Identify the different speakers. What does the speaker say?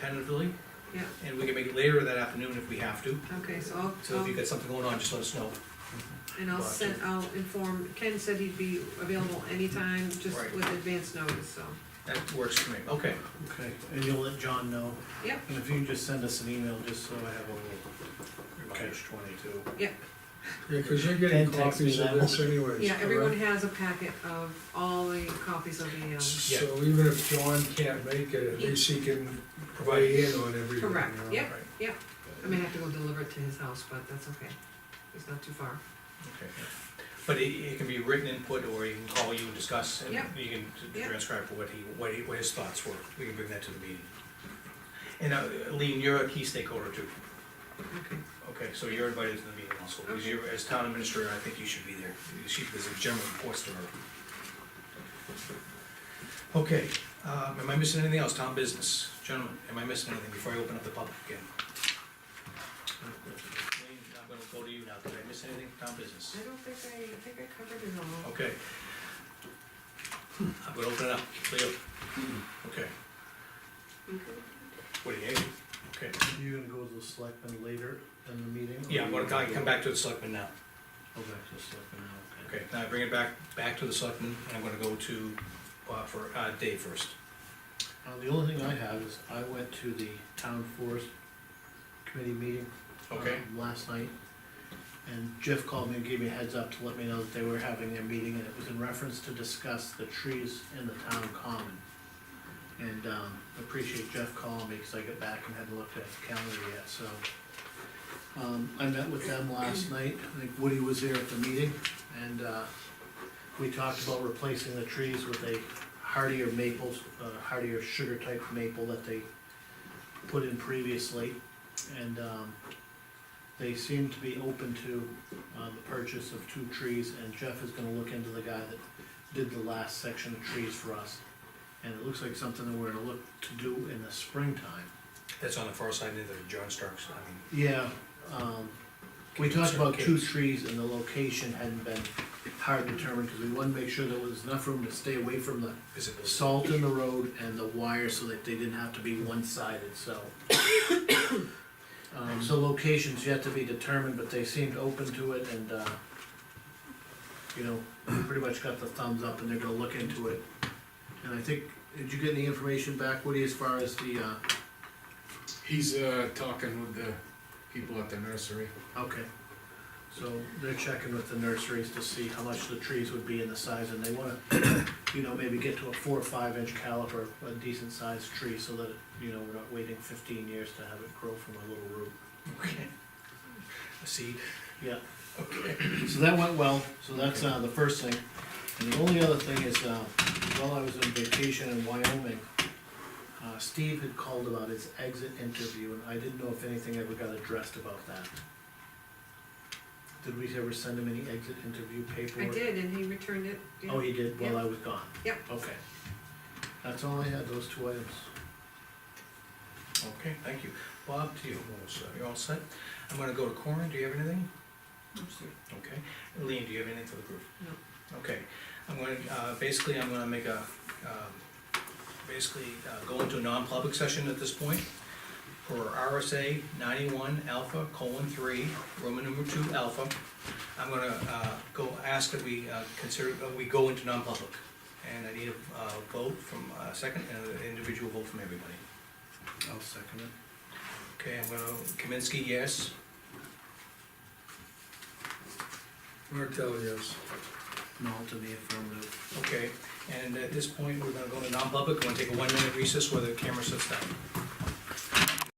Speaker 1: tentatively,
Speaker 2: yeah,
Speaker 1: and we can make it later that afternoon if we have to.
Speaker 2: okay, so I'll,
Speaker 1: So if
Speaker 2: I'll,
Speaker 1: you've got something going on, just let us know.
Speaker 2: and I'll send, I'll inform, Ken said he'd be available anytime, just
Speaker 1: Right.
Speaker 2: with advance notice, so.
Speaker 1: That works for me, okay.
Speaker 3: Okay, and you'll let John know,
Speaker 2: Yep,
Speaker 3: and if you can just send us an email, just so I have a little catch twenty-two.
Speaker 2: yep,
Speaker 4: Yeah, cause you're getting
Speaker 3: And text me
Speaker 4: copies of
Speaker 3: that.
Speaker 4: this anyways,
Speaker 2: yeah, everyone
Speaker 4: correct?
Speaker 2: has a packet of all the copies of the, um,
Speaker 4: So even if John can't make it, at
Speaker 2: Yeah.
Speaker 4: least he can weigh in on everything.
Speaker 2: Correct,
Speaker 4: you know?
Speaker 2: yep. I may have to go deliver it to his house, but that's okay, it's not too far.
Speaker 1: Okay. But it, it can be written input, or he can call you and discuss, and
Speaker 2: Yep.
Speaker 1: you can t-
Speaker 2: Yep.
Speaker 1: transcribe what he, what he, what his thoughts were, we can bring that to the meeting. And uh, Lean, you're a key stakeholder too,
Speaker 2: Okay,
Speaker 1: okay, so you're invited to the meeting also, because
Speaker 2: Okay.
Speaker 1: you're, as town administrator, I think you should be there, she, there's a general reports to her. Okay, um, am I missing anything else, town business, gentlemen, am I missing anything before I open up the public again? Lean, I'm gonna go to you now, did I miss anything, town business?
Speaker 2: I don't think I, I think I covered it all.
Speaker 1: Okay. I'm gonna open it up, Leo. Okay, what do you, need? okay,
Speaker 3: You're gonna go to the selectmen later in the meeting? or
Speaker 1: yeah, I'm gonna
Speaker 3: you wanna
Speaker 1: come-
Speaker 3: go-
Speaker 1: come back to the selectmen now.
Speaker 3: Go back to the selectmen now, okay.
Speaker 1: Okay, now I bring it back, back to the selectmen, and I'm gonna go to, uh, for, uh, Dave first.
Speaker 3: Uh, the only thing I have is I went to the town forest committee meeting.
Speaker 1: Okay,
Speaker 3: um, Last night, and Jeff called me and gave me a heads up to let me know that they were having their meeting, and it was in reference to discuss the trees in the town common. And, um, appreciate Jeff calling me, cause I got back and hadn't looked at the calendar yet, so. Um, I met with them last night, I think Woody was there at the meeting, and, uh, we talked about replacing the trees with a hardier maples, uh, hardier sugar type maple that they put in previously. And, um, they seem to be open to, uh, the purchase of two trees, and Jeff is gonna look into the guy that did the last section of trees for us. And it looks like something that we're gonna look to do in the springtime.
Speaker 1: that's on the far side, near the John Stark's, I mean.
Speaker 3: Yeah, um, we talked about two trees and the location hadn't been hard determined, cause we wanted to make sure there was enough room to stay away from the
Speaker 1: Visible.
Speaker 3: salt in the road and the wire so that they didn't have to be one-sided, so. Um, so locations yet to be determined, but they seemed open to it and, uh, you know, pretty much got the thumbs up and they're gonna look into it. And I think, did you get any information back, Woody, as far as the, uh,
Speaker 5: He's uh, talking with the people at the nursery.
Speaker 3: okay. So they're checking with the nurseries to see how much the trees would be and the size and they wanna, you know, maybe get to a four or five inch caliper, a decent sized tree so that, you know, we're not waiting fifteen years to have it grow from a little root.
Speaker 1: Okay. A seed,
Speaker 3: Yeah,
Speaker 1: okay.
Speaker 3: so that went well, so that's, uh, the first thing. And the only other thing is, uh, while I was on vacation in Wyoming, uh, Steve had called about his exit interview, and I didn't know if anything ever got addressed about that. Did we ever send him any exit interview
Speaker 2: I
Speaker 3: paperwork?
Speaker 2: did, and he returned it. yeah.
Speaker 3: Oh, he did, while
Speaker 2: Yeah.
Speaker 3: I was gone?
Speaker 2: Yep.
Speaker 3: Okay. That's all I had, those two items.
Speaker 1: Okay, thank you. Bob, to you, you're all set? I'm gonna go to Corin, do you have anything? Okay, Lean, do you have anything for the group? No. Okay, I'm going, to uh, basically, I'm gonna make a, um, basically, uh, go into a non-public session at this point for RSA ninety-one alpha colon three, Roman number two alpha. I'm gonna, uh, go ask that we, uh, consider, uh, we go into non-public. And I need a, uh, vote from, uh, second, and an individual vote from everybody.
Speaker 3: I'll second it.
Speaker 1: Okay, I'm gonna, Kaminsky, yes?
Speaker 4: Martel, yes.
Speaker 3: Null to the affirmative.
Speaker 1: Okay, and at this point, we're gonna go to non-public, we're gonna take a one-minute recess where the camera sits down.